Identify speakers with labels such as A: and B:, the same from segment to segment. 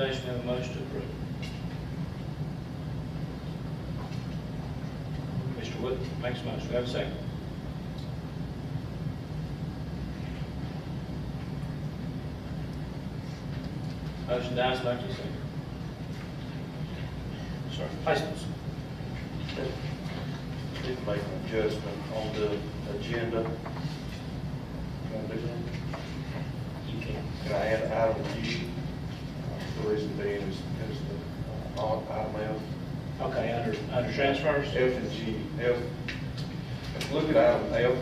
A: recommendation, have a motion to approve. Mr. Wood makes a motion, Do I have a second. Motion dies, Bucky, second. Sorry, placements.
B: Need to make an adjustment on the agenda. Can I do that?
A: You can.
B: Can I add item U? Uh, The reason being is, is the, uh, on item
A: Okay, under, under transfers?
B: F, F and G, F. If you look at item F,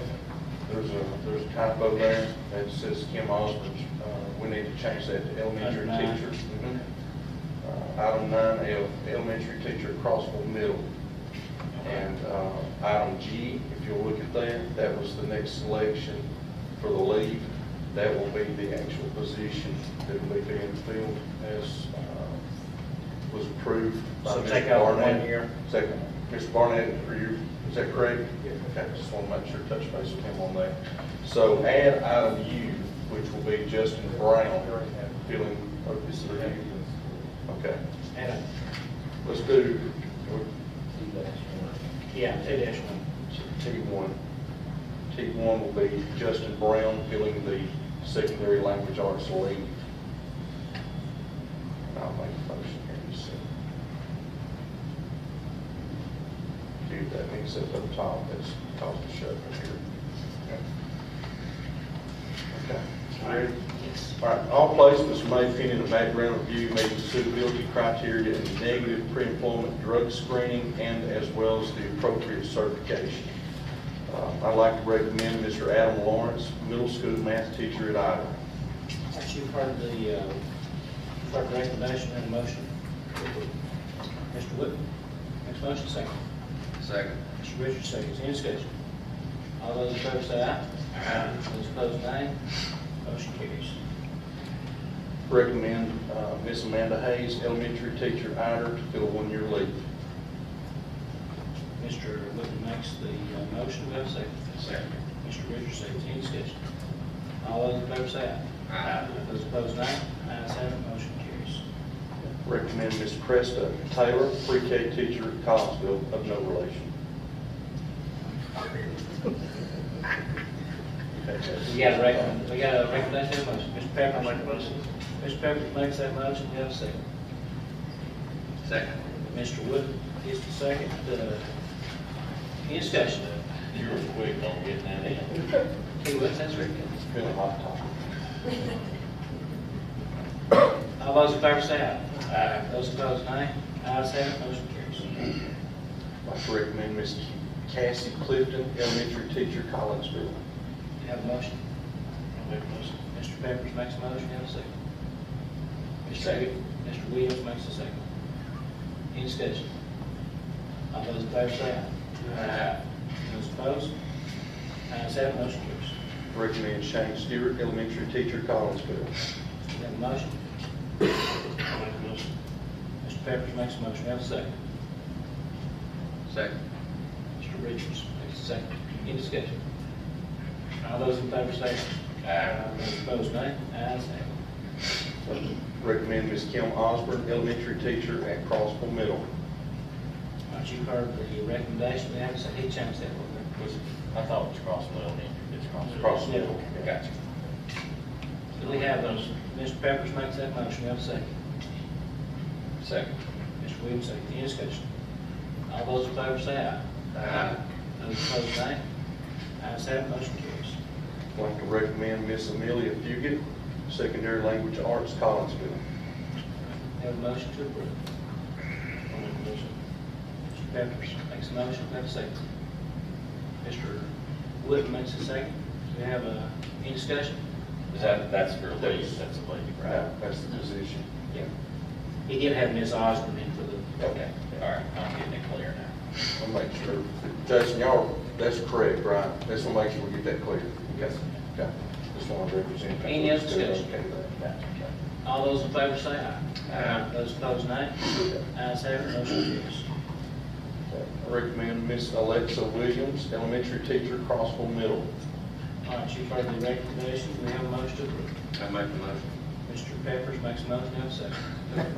B: there's a, there's a typo there that says Kim Osborne. Uh, we need to change that to elementary
A: Under nine.
B: teacher. Uh, Item nine F, elementary teacher Crossville Middle. And uh, item G, if you'll look at that, that was the next selection for the leave. That will be the actual position that will be being filled as uh, was approved by
A: So
B: Ms.
A: take out one
B: Barnett.
A: year?
B: Second, Ms. Barnett, are you, is that correct? Yeah. Okay, just want to make sure, touch base with him on that. So add item U, which will be Justin Brown filling, oh, this is review. Okay,
A: And, a-
B: let's do
A: yeah, two dash one.
B: T1. T1 will be Justin Brown filling the secondary language arts lead. And I'll make a motion here in a second. Dude, that means that's up top, that's top of the shut right here. Okay. Okay. Ready?
A: Yes.
B: All right, all placements may fit in a background review, meeting suitability criteria and negative pre-employment drug screening, and as well as the appropriate certification. Uh, I'd like to recommend Mr. Adam Lawrence, middle school math teacher at Ida.
A: Since you've heard the, uh, clerk recommendation and motion. Mr. Wood makes a motion, second.
C: Second.
A: Mr. Richards, seconds, any discussion? All those in favor say aye. Aye. Those opposed, nay. Motion carries.
B: Recommend uh, Miss Amanda Hayes, elementary teacher at Ida, to fill a one-year leave.
A: Mr. Wood makes the uh, motion, do I have a second?
C: Second.
A: Mr. Richards, seconds, any discussion? All those in favor say aye.
C: Aye.
A: Those opposed, nay. Ayes have it, motion carries.
B: Recommend Miss Cresta Taylor, pre-K teacher at Collinsville, of no relation.
A: We got a recommend, we got a recommendation, of motion. Mr. Pepper makes a motion. Mr. Pepper makes that motion, we have a second.
C: Second.
A: Mr. Wood gets the second, uh, any discussion?
D: You were quick on getting that in.
A: He was, that's right.
B: It's been a hot topic.
A: All those in favor say aye. Aye. Those opposed, nay. Ayes have it, motion carries.
B: I'd like to recommend Miss Cassie Clifton, elementary teacher, Collinsville.
A: You have a motion? I make a motion. Mr. Pepperidge makes a motion, you have a second. Mr.
C: Second.
A: Mr. Williams makes a second. Any discussion? All those in favor say aye. Aye. Those opposed? Ayes have, it, motion carries.
B: Recommend Shane Stewart, elementary teacher, Collinsville.
A: You have a motion?
D: I make a motion.
A: Mr. Pepperidge makes a motion, you have a second.
C: Second.
A: Mr. Richards makes a second. Any discussion? All those in favor say aye. Aye. Those opposed, nay. Ayes have. it.
B: Recommend Miss Kim Osborne, elementary teacher at Crossville Middle.
A: All right, you've heard the recommendation, they haven't said, he changed that one.
D: Was it- I thought it was Crossville, then it's Crossville.
B: Crossville.
D: Yeah.
C: Gotcha.
A: Do we have those? Mr. Peppers makes that motion, we have a second.
C: Second.
A: Mr. Williams, second, any discussion? All those in favor say aye.
C: Aye.
A: Those opposed, nay. Ayes have, it, motion carries.
B: I'd like to recommend Miss Amelia Fugit, secondary language arts, Collinsville.
A: Have a motion to approve.
D: I make a motion.
A: Mr. Peppers makes a motion, we have a second. Mr. Wood makes a second. Do we have a, any discussion?
D: Is that, that's for leave, that's a leave, right?
B: That's the position.
A: Yeah. He did have Ms. Osborne in for the,
D: Okay, all right, I'm getting it clear now.
B: I'll make sure, Jason, y'all, that's correct, right? Let's make sure we get that clear. Yes. Okay, just want to represent.
A: Any other discussion?
B: Okay, that-
A: all those in favor say aye.
C: Aye.
A: Those opposed, nay.
B: okay.
A: Ayes have, it, motion carries.
B: I recommend Miss Alexa Williams, elementary teacher, Crossville Middle.
A: All right, you've heard the recommendation, we have a motion to approve.
C: I make the motion.
A: Mr. Peppers makes a motion, have a second.